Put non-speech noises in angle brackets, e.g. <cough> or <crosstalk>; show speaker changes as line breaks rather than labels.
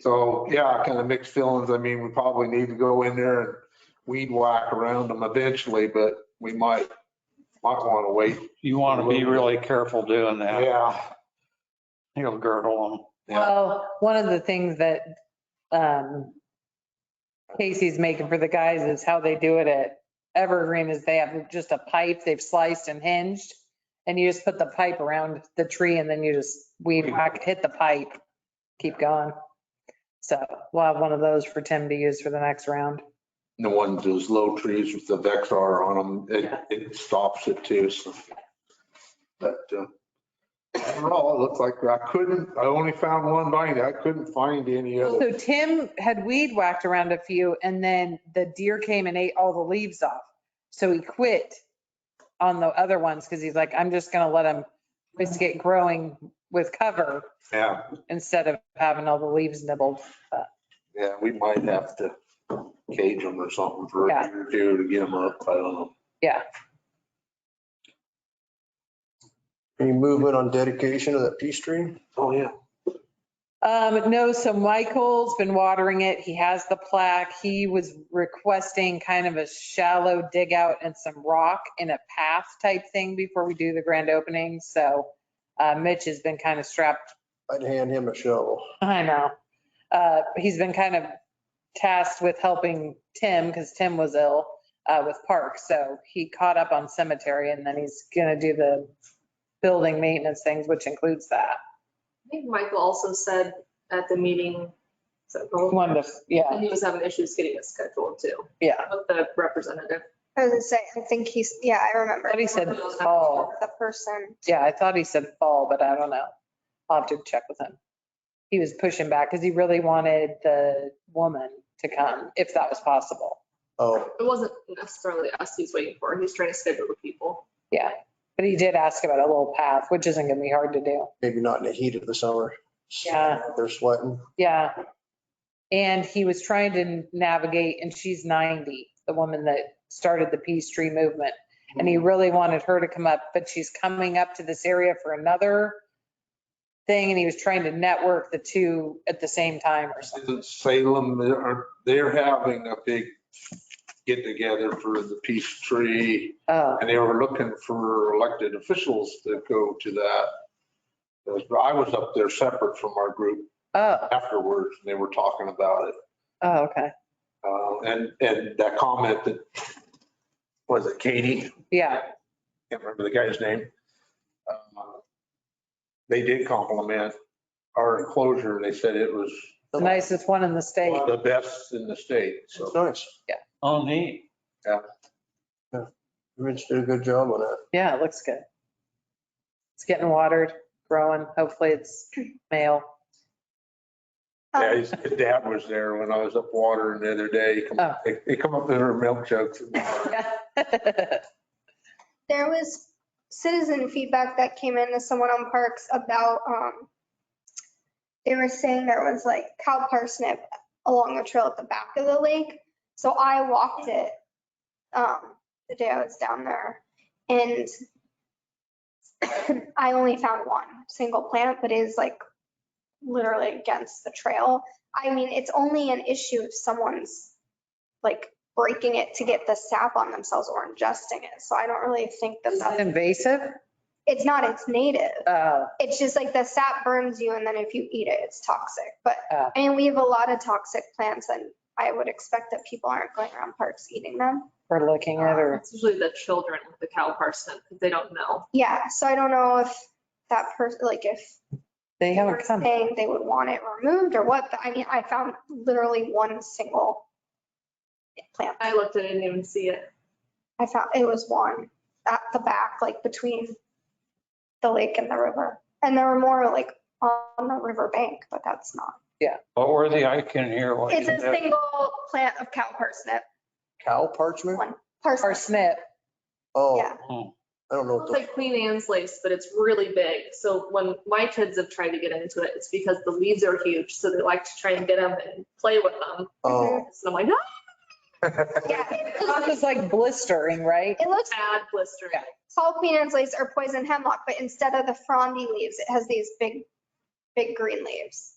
So, yeah, kind of mixed feelings. I mean, we probably need to go in there and weed whack around them eventually, but we might, might want to wait.
You want to be really careful doing that.
Yeah,
He'll girdle them.
Yeah.
Well, one of the things that um, Casey's making for the guys is how they do it at Evergreen is they have just a pipe they've sliced and hinged. And you just put the pipe around the tree and then you just weed whack, hit the pipe, keep going. So we'll have one of those for Tim to use for the next round.
the ones, those low trees with the Vexar on them, it,
Yeah.
it stops it too, so. But, uh, overall, it looked like I couldn't, I only found one binder. I couldn't find any other.
So Tim had weed whacked around a few and then the deer came and ate all the leaves off. So he quit on the other ones because he's like, I'm just going to let them just get growing with cover
Yeah,
instead of having all the leaves nibbled.
yeah, we might have to cage them or something for a
Yeah.
year or two to get them up. I don't know.
Any movement on dedication of that peace tree?
Oh, yeah.
Um, no, so Michael's been watering it. He has the plaque. He was requesting kind of a shallow dig out and some rock in a path type thing before we do the grand opening. So uh, Mitch has been kind of strapped
I'd hand him a shovel.
I know. Uh, he's been kind of tasked with helping Tim because Tim was ill uh, with Park. So he caught up on cemetery and then he's going to do the building maintenance things, which includes that.
I think Michael also said at the meeting, so
One to, yeah,
he was having issues getting it scheduled too,
yeah.
with the representative.
I was gonna say, I think he's, yeah, I remember.
But he said fall.
The person,
Yeah, I thought he said fall, but I don't know. I'll have to check with him. He was pushing back because he really wanted the woman to come if that was possible.
Oh,
It wasn't necessarily us he's waiting for. He's trying to schedule the people.
Yeah. But he did ask about a little path, which isn't going to be hard to do.
maybe not in the heat of the summer.
Yeah.
They're sweating.
Yeah. And he was trying to navigate, and she's 90, the woman that started the Peace Tree movement. And he really wanted her to come up, but she's coming up to this area for another thing, and he was trying to network the two at the same time or something.
Isn't Salem, they're, they're having a big get together for the peace tree.
Oh,
And they were looking for elected officials to go to that. Because I was up there separate from our group
oh,
afterwards and they were talking about it.
oh, okay.
Uh, and, and that comment that, was it Katie?
Yeah,
Can't remember the guy's name. Uh, They did compliment our enclosure. They said it was
the nicest one in the state.
one of the best in the state, so.
It's nice.
Oh, neat.
Rich did a good job on that.
Yeah, it looks good. It's getting watered, growing. Hopefully it's male. <laughs>
Yeah,
um,
his his dad was there when I was up watering the other day. He come-
Oh.
They they come up with their milk <laughs> jugs. and-
there was citizen feedback that came in to someone on Parks about, um, they were saying there was like cow parsnip along the trail at the back of the lake. So I walked it, um, the day I was down there and <coughs> I only found one single plant, but it is like literally against the trail. I mean, it's only an issue if someone's like breaking it to get the sap on themselves or ingesting it. So I don't really think that
Is it
that's,
invasive?
it's not, it's native.
Oh,
It's just like the sap burns you and then if you eat it, it's toxic. But,
Oh.
I mean, we have a lot of toxic plants and I would expect that people aren't going around parks eating them.
we're looking at her.
It's usually the children with the cow parsnip, 'cause they don't know.
Yeah, so I don't know if that person, like if
They
they were
haven't come.
saying they would want it removed or what, but I mean, I found literally one single plant.
I looked and I didn't even see it.
I found, it was one at the back, like between the lake and the river. And there were more like on the river bank, but that's not.
But worthy, I can hear what you
It's a
did.
single plant of cow parsnip.
Cow parchment?
One. Parsnip.
Parsnip.
Oh,
Yeah.
Oh,
I don't know. what
It's
the-
like Queen Anne's lace, but it's really big. So when my kids have tried to get into it, it's because the leaves are huge. So they like to try and get them and play with them.
Oh,
So I'm like, no,
Yeah, it
It's
looks-
just like blistering, right?
it looks
bad blistering.
Yeah.
tall Queen Anne's lace or poison hemlock, but instead of the frondy leaves, it has these big, big green leaves.